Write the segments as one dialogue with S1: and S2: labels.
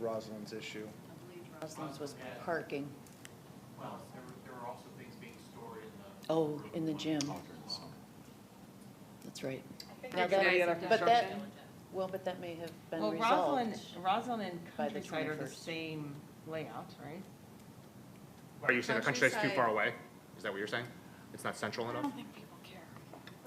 S1: Rosalind's issue.
S2: Roslyn's was parking,
S3: Well, there were, there were also things being stored in the.
S2: oh, in the gym. That's right. Now
S4: It's nice
S2: that-
S4: and
S2: But that,
S4: disruptive.
S2: well, but that may have been
S5: Well,
S2: resolved.
S5: Rosalind, Rosalind and
S2: by the
S5: Countryside are the
S2: 21st.
S5: same layout, right?
S6: Are you saying the countryside's too far away? Is that what you're saying? It's not central enough?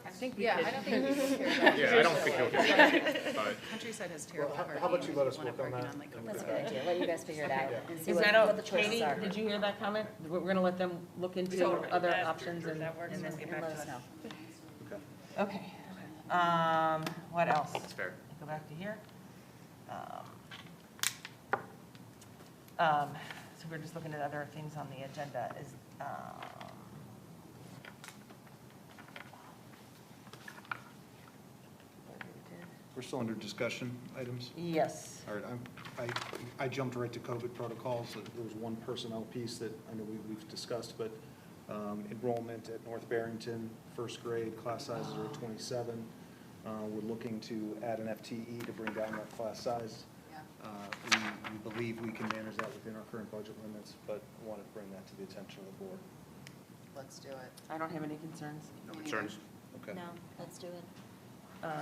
S5: I think we
S4: Yeah, I
S5: could,
S4: don't think people care about
S6: Yeah, I don't think he'll get it, but
S7: Countryside has
S1: Well,
S7: terrible
S1: how-
S7: parking.
S1: how about you let us
S7: Wanna
S1: work on
S7: park it
S1: that?
S7: like,
S1: and
S8: That's a
S1: get
S8: good
S1: back?
S8: idea. Let you guys figure it out and see
S5: is
S8: what
S5: that,
S8: what
S5: o-
S8: the choices
S5: Katie,
S8: are.
S5: did you hear that comment? We're, we're gonna let them look into other options
S7: And
S5: and,
S7: then get
S8: And
S7: back
S8: let
S7: to
S8: us
S7: us.
S8: know.
S5: okay. Um, what else?
S6: it's fair.
S5: Go back to here. Um, um, So we're just looking at other things on the agenda is, um,
S1: We're still under discussion items.
S5: yes.
S1: All right, I'm, I, I jumped right to COVID protocols. There was one personnel piece that I know we, we've discussed, but, um, enrollment at North Barrington, first grade, class sizes are twenty-seven. Uh, we're looking to add an FTE to bring down that class size. Uh, we, we believe we can manage that within our current budget limits, but wanted to bring that to the attention of the board.
S7: Let's do it.
S5: I don't have any concerns.
S6: No concerns?
S1: Okay.
S8: No, let's do it.
S5: Uh,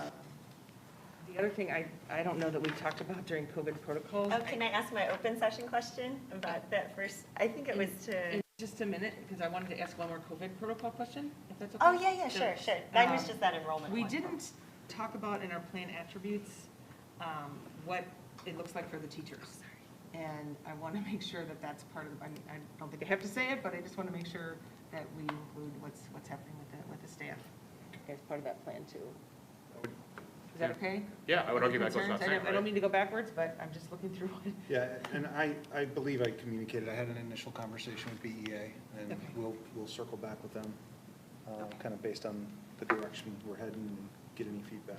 S5: The other thing I, I don't know that we talked about during COVID protocols.
S9: Oh, can I ask my open session question about that first? I think it was to,
S5: In just a minute, because I wanted to ask one more COVID protocol question, if that's okay.
S9: oh, yeah, yeah, sure, sure. Mine was
S5: Um,
S9: just that enrollment
S5: We
S9: one.
S5: didn't talk about in our plan attributes, um, what it looks like for the teachers. And I want to make sure that that's part of, I mean, I don't think I have to say it, but I just want to make sure that we include what's, what's happening with the, with the staff as part of that plan too. Is that okay?
S6: Yeah, I would argue that goes
S5: Concerns?
S6: without
S5: I
S6: saying,
S5: don't, I don't
S6: right?
S5: mean to go backwards, but I'm just looking through it.
S1: Yeah, and I, I believe I communicated, I had an initial conversation with BEA, and
S5: Okay.
S1: we'll, we'll circle back with them, kind of based on the direction we're heading and get any feedback.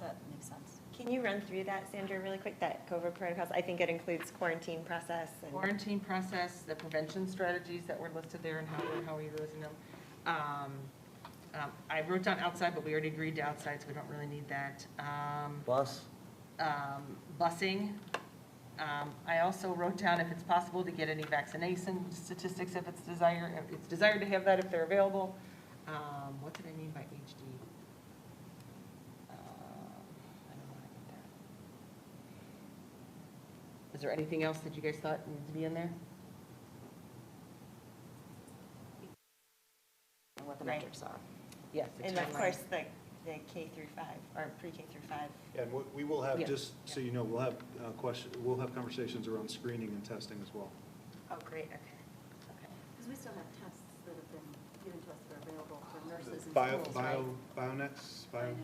S8: That makes sense.
S9: Can you run through that, Sandra, really quick, that COVID protocols? I think it includes quarantine process and,
S5: Quarantine process, the prevention strategies that were listed there and how, we're- how are you using them? Um, um, I wrote down outside, but we already agreed to outside, so we don't really need that. Um,
S1: Bus?
S5: um, busing. Um, I also wrote down if it's possible to get any vaccination statistics if it's desired, if it's desired to have that if they're available. Um, what did I mean by HD? Um, I don't know what I meant there. Is there anything else that you guys thought needed to be in there?
S8: And what the
S5: Right.
S8: metrics are.
S5: Yes. the
S9: and of
S5: timeline.
S9: course, the, the K through five, or pre-K through five.
S1: And we- we will have,
S5: Yeah.
S1: just so you know, we'll have uh, question, we'll have conversations around screening and testing as well.
S9: Oh, great, okay.
S4: Because we still have tests that have been given to us that are available for nurses and
S1: Bio,
S4: schools, right? Mm-hmm.
S1: bio, bionets, bio,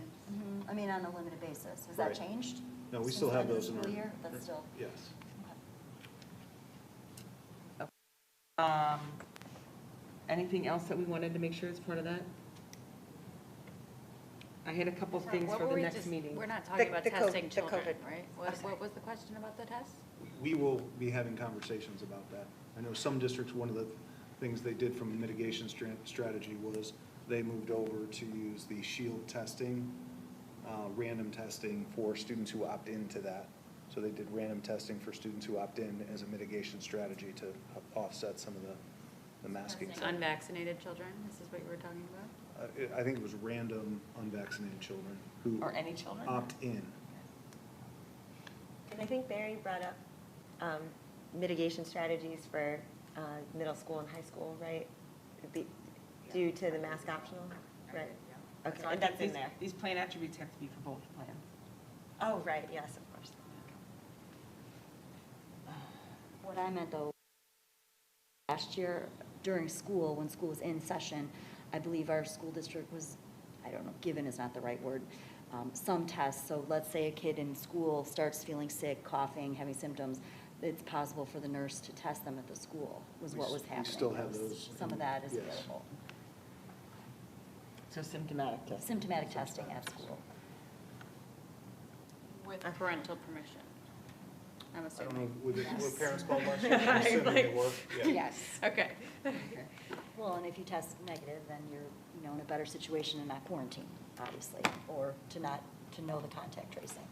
S8: I mean, on a limited basis. Has that
S1: Right.
S8: changed?
S1: no, we
S8: since
S1: still
S8: the
S1: have
S8: end of the
S1: those in our.
S8: school year? That's still.
S1: Yes.
S5: Um, Anything else that we wanted to make sure is part of that? I had a couple things for the next meeting.
S4: We're not talking
S9: The-
S4: about
S9: the co-
S4: testing
S9: the
S4: children,
S9: COVID.
S4: right? What, what was the question about the test?
S1: We will be having conversations about that. I know some districts, one of the things they did from a mitigation stra- strategy was they moved over to use the shield testing, uh, random testing for students who opt into that. So they did random testing for students who opt in as a mitigation strategy to offset some of the, the masking.
S4: Unvaccinated children, this is what you were talking about?
S1: Uh, it- I think it was random unvaccinated children who
S5: Or any children?
S1: opt in.
S9: And I think Barry brought up um, mitigation strategies for uh, middle school and high school, right? Be- Due to the mask optional, right? Okay,
S5: So I
S9: and
S5: think
S9: that's in
S5: these-
S9: there.
S5: These plan attributes have to be for both plans.
S9: Oh, right, yes, of course.
S8: What I meant though, last year during school, when school was in session, I believe our school district was, I don't know, given is not the right word, um, some tests. So let's say a kid in school starts feeling sick, coughing, having symptoms, it's possible for the nurse to test them at the school, was
S1: We
S8: what
S1: s-
S8: was
S1: we
S8: happening.
S1: still
S8: That
S1: have
S8: was-
S1: those
S8: Some of
S1: in-
S8: that is
S1: yes.
S8: available.
S5: So symptomatic test.
S8: Symptomatic testing at school.
S4: With parental permission,
S1: I
S4: I'm
S1: don't know,
S4: assuming.
S1: were the- were parents called last year? I'm assuming they were. Yeah.
S8: Yes.
S4: Okay.
S8: Well, and if you test negative, then you're, you know, in a better situation to not quarantine, obviously, or to not, to know the contact tracing.